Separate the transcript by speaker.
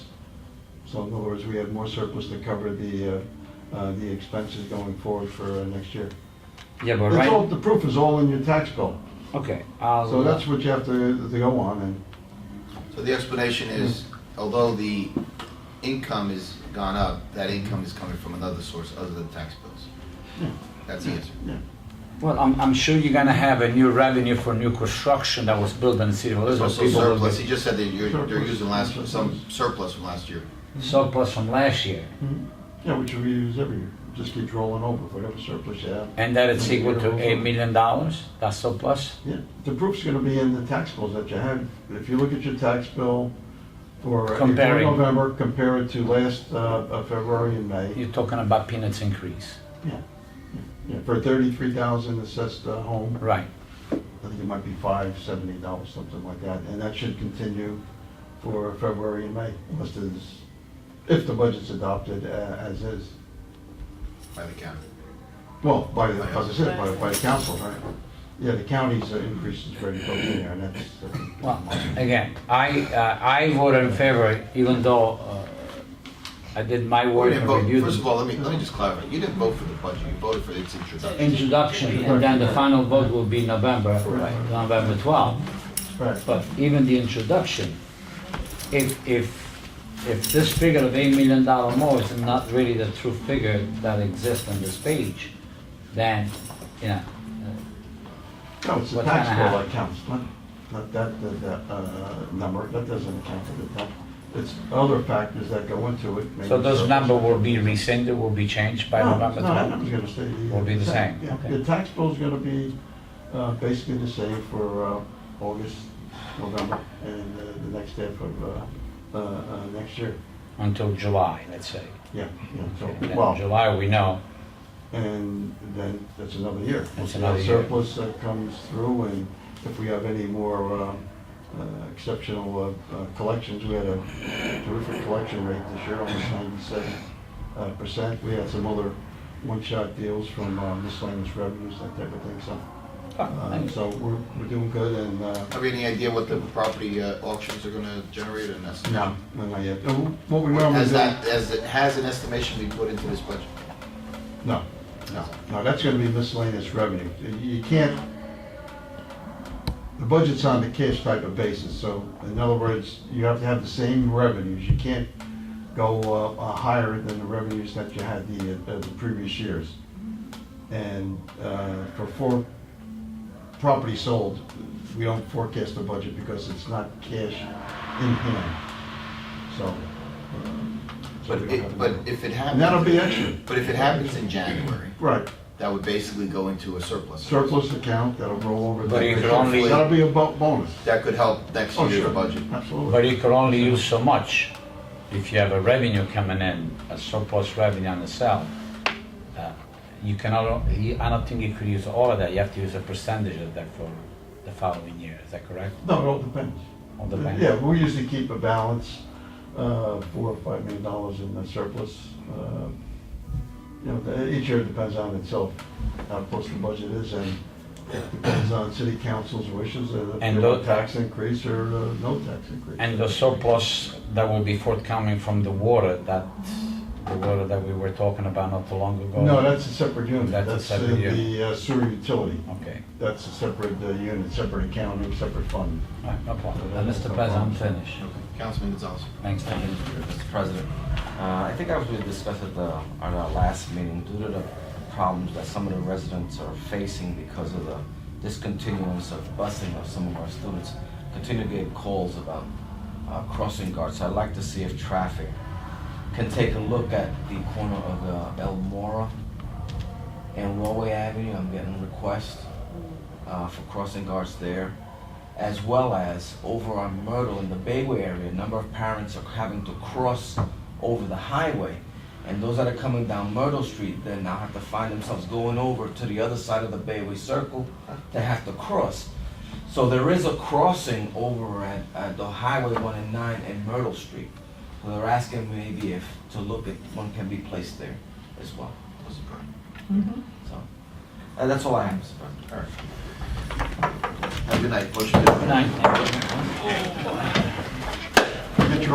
Speaker 1: So in other words, we have more surplus to cover the, uh, uh, the expenses going forward for uh, next year.
Speaker 2: Yeah, but
Speaker 1: It's all,
Speaker 2: right,
Speaker 1: the proof is all in your tax bill,
Speaker 2: okay, I'll. uh,
Speaker 1: so that's what you have to, to go on, and
Speaker 3: So the explanation is, although the income has gone up, that income is coming from another source other than tax bills.
Speaker 1: Yeah.
Speaker 3: That's the answer.
Speaker 2: Mm-hmm. Well, I'm, I'm sure you're gonna have a new revenue for new construction that was built in the city of
Speaker 3: There's
Speaker 2: Elizabeth.
Speaker 3: also
Speaker 2: People will
Speaker 3: surplus,
Speaker 2: be-
Speaker 3: he just said that you're, they're
Speaker 1: Surplus.
Speaker 3: using last, some surplus from last year.
Speaker 2: Surplus from last year,
Speaker 1: Mm-hmm. Yeah, which we use every year, just keeps rolling over, whatever surplus you have.
Speaker 2: and that it's equal to eight million dollars, that's surplus?
Speaker 1: Yeah, the proof's gonna be in the tax bills that you have. If you look at your tax bill for April,
Speaker 2: Comparing.
Speaker 1: November, compare it to last, uh, uh, February and May.
Speaker 2: You're talking about peanuts increase,
Speaker 1: Yeah, yeah, for thirty-three thousand assessed uh, home,
Speaker 2: right?
Speaker 1: I think it might be five seventy dollars, something like that, and that should continue for February and May, unless there's, if the budget's adopted uh, as is.
Speaker 3: by the county.
Speaker 1: Well, by, the- as I said, by, by the council, right? Yeah, the county's uh, increase is very close in there, and that's. uh,
Speaker 2: Well, again, I, uh, I voted in favor, even though uh, I did my
Speaker 3: You
Speaker 2: work
Speaker 3: didn't
Speaker 2: and
Speaker 3: vote,
Speaker 2: reviewed.
Speaker 3: first of all, let me, let me just clarify, you didn't vote for the budget, you voted for its introduction.
Speaker 2: Introduction, and then the final vote will be November,
Speaker 1: Right.
Speaker 2: November 12.
Speaker 1: Right.
Speaker 2: But even the introduction, if, if, if this figure of eight million dollar more is not really the true figure that exists on this page, then, you know,
Speaker 1: No, it's the
Speaker 2: What's gonna
Speaker 1: tax bill that
Speaker 2: happen?
Speaker 1: counts, not, not that, that- that, uh, number, that doesn't account for the tax. It's other factors that go into it. maybe
Speaker 2: so those
Speaker 1: surplus.
Speaker 2: number will be rescinded, will be changed by
Speaker 1: No,
Speaker 2: November
Speaker 1: No, that
Speaker 2: 12.
Speaker 1: number's gonna stay the.
Speaker 2: Will be the same,
Speaker 1: Yeah,
Speaker 2: okay.
Speaker 1: the tax bill's gonna be, uh, basically the same for, uh, August, November, and uh, the next step of, uh, uh, uh, next year.
Speaker 2: Until July, let's say.
Speaker 1: Yeah, yeah,
Speaker 2: And
Speaker 1: so,
Speaker 2: then
Speaker 1: well,
Speaker 2: July, we know,
Speaker 1: And then that's another year.
Speaker 2: That's another year.
Speaker 1: Surplus that comes through, and if we have any more uh, uh, exceptional uh, uh, collections, we had a terrific collection rate this year, almost ninety-seven uh, percent. We had some other one-shot deals from uh, miscellaneous revenues, that type of thing, so. uh, So we're, we're doing good, and, uh,
Speaker 3: Have you any idea what the property uh, auctions are gonna generate or an estimate?
Speaker 1: no, not yet. Uh, What we normally do.
Speaker 3: Has that, has, it- has an estimation been put into this budget?
Speaker 1: No, no, no, that's gonna be miscellaneous revenue. You you can't, the budget's on the cash type of basis, so in other words, you have to have the same revenues. You can't go uh, uh, higher than the revenues that you had the, uh, the previous years. And uh, for four property sold, we don't forecast the budget because it's not cash in hand, so. uh, so
Speaker 3: But
Speaker 1: we don't have
Speaker 3: it,
Speaker 1: a
Speaker 3: but
Speaker 1: number.
Speaker 3: if it
Speaker 1: And that'll
Speaker 3: happens,
Speaker 1: be extra,
Speaker 3: but if it happens in January,
Speaker 1: right.
Speaker 3: that would basically go into a surplus.
Speaker 1: surplus account that'll roll over.
Speaker 2: But
Speaker 1: to-
Speaker 2: you could only-
Speaker 1: That'll be a bo- bonus.
Speaker 3: That could help next
Speaker 1: Oh,
Speaker 3: year's
Speaker 1: sure.
Speaker 3: budget.
Speaker 2: but
Speaker 1: Absolutely.
Speaker 2: you can only use so much. If you have a revenue coming in, a surplus revenue on the sale, uh, you cannot, you- I don't think you could use all of that, you have to use a percentage of that for the following year, is that correct?
Speaker 1: No, it all depends.
Speaker 2: On the bank?
Speaker 1: Yeah, we usually keep a balance, uh, four or five million dollars in the surplus. uh, You know, the- each year depends on itself, how close the budget is, and it depends on city council's wishes, uh, if
Speaker 2: And
Speaker 1: they want
Speaker 2: tho-
Speaker 1: tax increase or uh, no tax increase.
Speaker 2: And the surplus that will be forthcoming from the water, that, the water that we were talking about not too long ago?
Speaker 1: No, that's a separate unit.
Speaker 2: That's a
Speaker 1: in
Speaker 2: separate unit.
Speaker 1: The uh, sewer utility,
Speaker 2: Okay,
Speaker 1: that's a separate uh, unit, separate accounting, separate fund.
Speaker 2: All right, no problem. Then, Mr. President, I'm finished.
Speaker 3: Councilman Gonzalez.
Speaker 2: Thanks, thank you.
Speaker 4: Mr. President, uh, I think as we discussed at the, on our last meeting, due to the problems that some of the residents are facing because of the discontinuance of busing of some of our students, continue to get calls about uh, crossing guards. So I'd like to see if traffic can take a look at the corner of uh, Elmora and Norway Avenue. I'm getting requests uh, for crossing guards there, as well as over on Myrtle in the Bayway area. A number of parents are having to cross over the highway, and those that are coming down Myrtle Street then now have to find themselves going over to the other side of the Bayway Circle. They have to cross. So there is a crossing over at, at the Highway 1 and 9 and Myrtle Street. So they're asking maybe if to look at one can be placed there as well. So uh, that's all I have, Mr. President.
Speaker 3: Have a good night. Motion to adjourn.
Speaker 2: Good night.